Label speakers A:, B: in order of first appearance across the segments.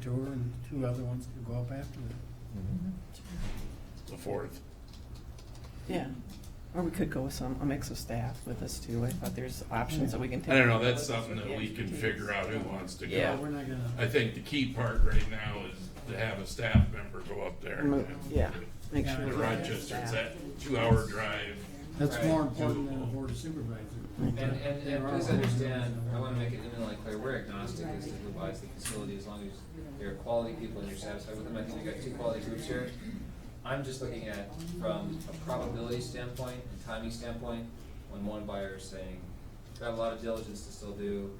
A: tour and two other ones could go up after that.
B: the fourth.
C: Yeah, or we could go with some, a mix of staff with us too, I thought there's options that we can take.
B: I don't know, that's something that we can figure out who wants to
C: Yeah.
A: But We're
B: go.
A: not gonna.
B: I think the key part right now is to have a staff member go up there.
C: Mo- Yeah, make
A: Yeah,
C: sure.
B: The
C: we have
B: Rochester, it's
C: staff.
B: that two-hour drive.
A: That's
D: Right.
A: more important than a board of supervisors.
D: And, and, and please understand, I wanna make it eminently clear, we're agnostic as to who buys the facility, as long as you're quality people and you're satisfied with them, I think we got two quality groups here. I'm just looking at, from a probability standpoint and timing standpoint, when one buyer is saying, got a lot of diligence to still do,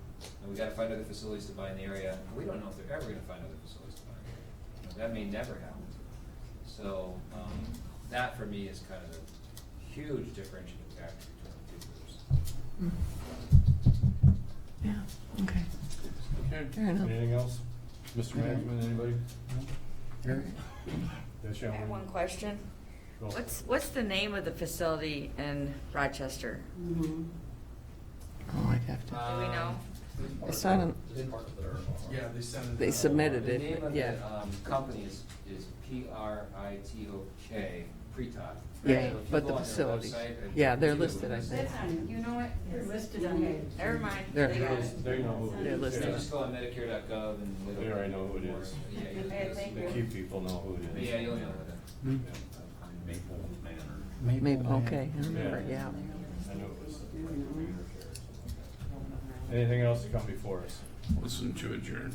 D: and we gotta find other facilities to buy in the area, we don't know if they're ever gonna find other facilities to buy in the area. That may never happen. So, um, that for me is kind of a huge differentiating factor between the two groups.
C: Mm. Yeah, okay,
B: Okay.
C: fair enough.
E: Anything else? Mr.
A: No.
E: Management, anybody?
A: Here,
E: Yes,
F: I have
E: Sharon?
F: one question.
E: Go.
F: What's, what's the name of the facility in Rochester?
C: Oh, I'd have to,
F: Do we
D: Um,
F: know?
C: it's not, on-
G: Yeah, they sent it.
C: they submitted
D: The
C: it,
D: name
C: but
D: of
C: yeah,
D: the, um, company is, is P R I T O K, Pretot.
C: yeah,
D: So if you
C: but
D: go
C: the
D: on their
C: facility,
D: website and
C: yeah, they're
D: do it,
C: listed, I think,
F: You know what?
H: They're listed on there.
F: Never mind.
C: There.
F: They got it.
E: They know who it is.
C: They're
D: If you
C: listed.
D: just go on Medicare.gov and. it'll-
E: They already know who it is.
D: Yeah, you-
H: Okay, thank
E: The key people know who it is.
D: Yeah, you'll know
A: Hmm?
G: Maple Manor.
C: maybe,
A: Maple Lane.
C: okay, I remember, yeah.
E: I knew it was. Anything else to come before us?
B: Listen to adjourn.